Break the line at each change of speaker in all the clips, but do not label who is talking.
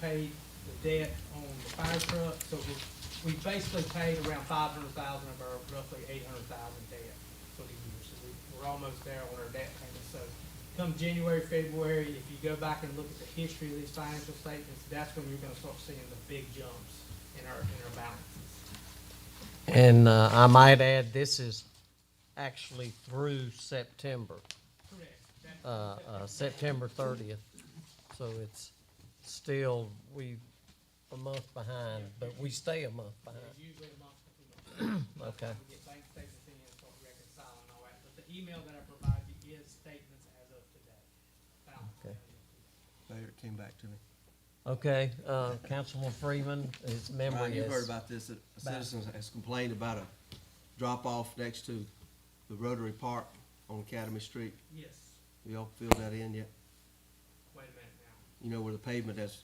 paid the debt on the fire truck, so we, we basically paid around five hundred thousand of our roughly eight hundred thousand debt for the year. So we, we're almost there on our debt payment, so come January, February, if you go back and look at the history of these financial statements, that's when you're gonna start seeing the big jumps in our, in our balances.
And uh, I might add, this is actually through September,
Correct. That-
uh, uh, September 30th. So it's still, we, a month behind, but we stay a month behind.
There's usually a month, two months.
Okay.
We get bank statements in, start reconciling and all that, but the email that I provide you is statements as of today. Balance
Okay.
as of today.
Later, it came back to me.
Okay, uh, Councilman Freeman, his
Ryan,
memory
you Uh, heard
is.
about this, that a citizen has complained about a drop-off next to the Rotary Park on Academy Street.
Yes,
Have Y'all filled that in yet?
wait a minute now.
You know where the pavement has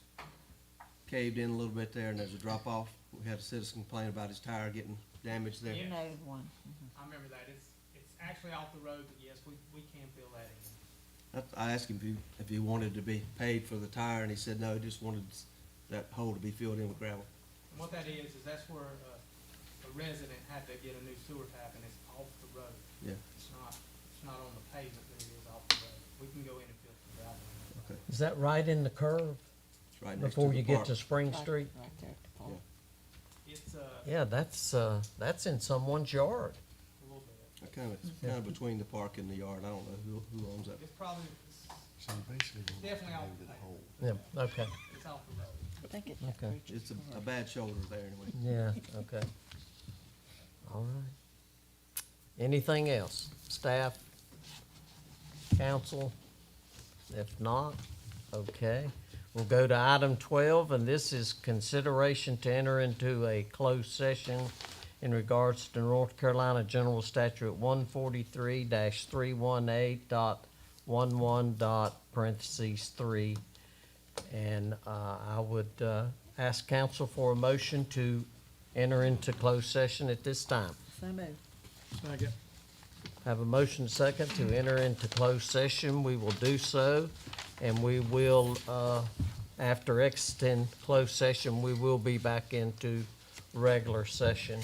caved in a little bit there and there's a drop-off? We had a citizen complain about his tire getting damaged there.
Yeah.
No one.
I remember that. It's, it's actually off the road, but yes, we, we can fill that in.
That- I asked him if he, if he wanted to be paid for the tire and he said no, he just wanted s- that hole to be filled in with gravel.
And what that is, is that's where uh, a resident had to get a new sewer tap and it's off the road.
Yeah,
It's not, it's not on the pavement, but it is off the road. We can go in and fill the gravel. in.
okay.
Is that right in the curve
It's right next to
before
the
you get
park.
to Spring Street?
Right there at
Yeah.
the pole.
It's uh, a
Yeah, that's, uh, that's in someone's yard.
little bit.
Uh, Kind of, it's kind of between the park and the yard. I don't know who, who owns that.
It's probably, it's
So you basically want to
Definitely
get
out
into
the
the
way.
hole.
Yeah, okay,
it's off the road.
I think it's that
Okay.
bridge.
It's a, a bad shoulder there anyway.
yeah, okay. All right. Anything else? Staff? Council? If not, okay. We'll go to item twelve, and this is consideration to enter into a closed session in regards to North Carolina General Statute one forty-three three one eight dot one one dot parentheses three. And, uh, I would, uh, ask council for a motion to enter into closed session at this time.
So moved.
Have a motion second to enter into closed session. We will do so, and we will, uh, after exiting closed session, we will be back into regular session.